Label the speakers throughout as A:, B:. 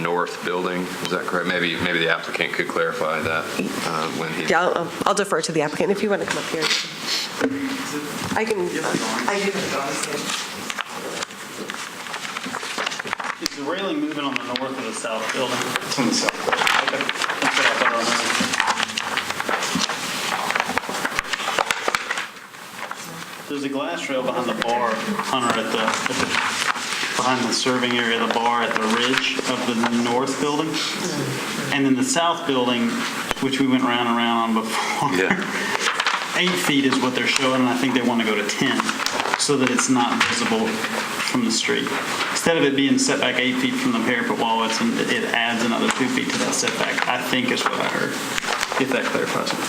A: north building, is that correct? Maybe, maybe the applicant could clarify that uh, when he,
B: Yeah, I'll- um, I'll defer to the applicant if you want to come up here. I can, I can,
C: Is the railing moving on the north or the south building?
D: It's on the south.
C: Okay, that's what I thought I remembered. There's a glass rail behind the bar, Hunter, at the, at the, behind the serving area of the bar at the ridge of the north building. And then the south building, which we went round and round on before. Eight feet is what they're showing, and I think they want to go to 10, so that it's not visible from the street. Instead of it being set back eight feet from the parapet wall, it's, it adds another two feet to that setback, I think is what I heard, if that clarifies it.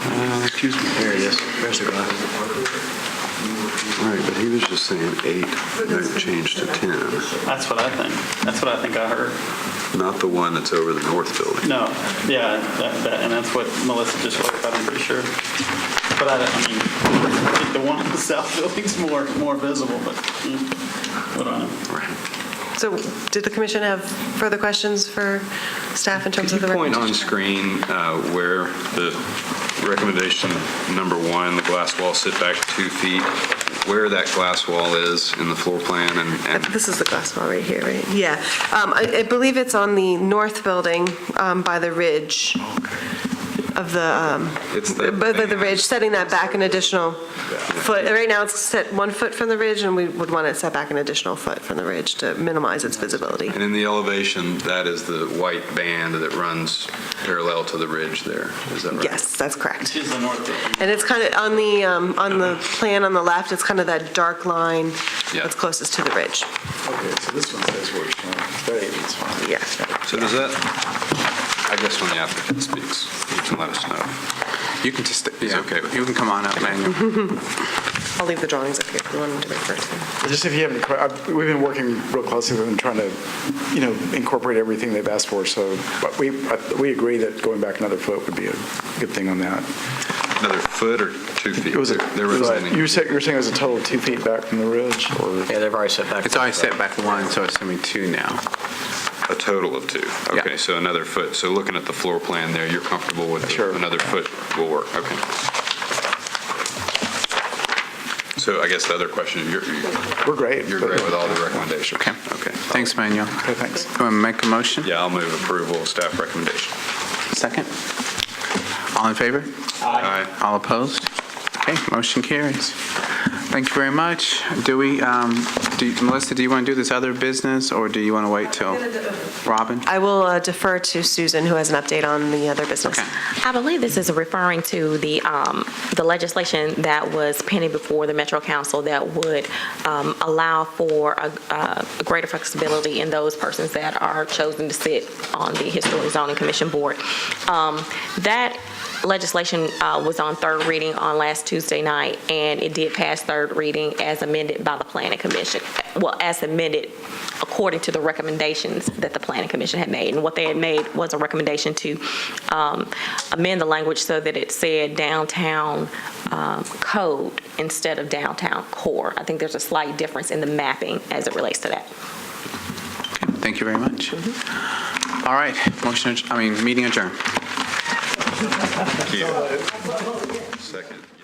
E: Uh,
F: Excuse me. There it is. There's the glass.
E: Right, but he was just saying eight, that changed to 10,
C: That's what I think, that's what I think I heard.
E: not the one that's over the north building.
C: No, yeah, that, that, and that's what Melissa just clarified, I'm pretty sure. But I, don't- I mean, I think the one on the south building's more, more visible, but, mm, what do I know?
B: so did the commission have further questions for staff in
A: could
B: terms
A: you
B: of the
A: point
B: recommendation?
A: on screen uh, where the recommendation number one, the glass wall sit back two feet, where that glass wall is in the floor plan and-
B: Uh,
A: and
B: This is the glass wall right here, right? Yeah. Um, I I believe it's on the north building um, by the ridge of the, um,
A: it's the.
B: by the- the ridge, setting that back an additional foot. Right now, it's set one foot from the ridge, and we would want it set back an additional foot from the ridge to minimize its visibility.
A: And in the elevation, that is the white band that runs parallel to the ridge there, is that right?
B: Yes, that's correct.
C: She's the north building.
B: And it's kind of, on the, um, on the plan on the left, it's kind of that dark line
A: Yeah.
B: that's closest to the ridge.
D: Okay, so this one says where it's showing. That eight feet's fine.
B: Yeah.
A: So does that, I guess when the applicant speaks, you can let us know.
G: You can just,
A: He's
G: yeah,
A: okay with
G: you can come on up, man.
B: I'll leave the drawings up here if you want them to refer to.
D: Just if you have any, que- I've- we've been working real closely with them, trying to, you know, incorporate everything they've asked for, so but we, but we agree that going back another foot would be a good thing on that.
A: Another foot or two feet?
D: It was, a-
A: There
D: it was
A: was
D: a-
A: any.
D: you were saying, you were saying it was a total of two feet back from the ridge, or?
F: Yeah, they've already set back.
G: It's always set back one, so it's gonna be two now.
A: A total of two.
G: Yeah.
A: Okay, so another foot. So looking at the floor plan there, you're comfortable with the-
D: Sure.
A: another foot will work, okay. So I guess the other question, you're,
D: We're great.
A: you're great with all the recommendations?
G: Okay.
A: Okay.
G: Thanks, Manuel.
D: Okay, thanks.
G: You want to make a motion?
A: Yeah, I'll move approval of staff recommendation.
G: Second? All in favor?
A: Aye.
G: All opposed? Okay, motion carries. Thank you very much. Do we, um, do you- Melissa, do you want to do this other business, or do you want to wait till Robin?
B: I will uh, defer to Susan, who has an update on the other business.
G: Okay.
H: I believe this is referring to the, um, the legislation that was pending before the Metro Council that would, um, allow for a, a greater flexibility in those persons that are chosen to sit on the Historic Zoning Commission Board. Um, that legislation, uh, was on third reading on last Tuesday night, and it did pass third reading as amended by the Planning Commission, well, as amended according to the recommendations that the Planning Commission had made. And what they had made was a recommendation to um, amend the language so that it said downtown um, code instead of downtown core. I think there's a slight difference in the mapping as it relates to that.
G: Thank you very much. All right, motion, adj- I mean, meeting adjourned.
A: Thank you. Second.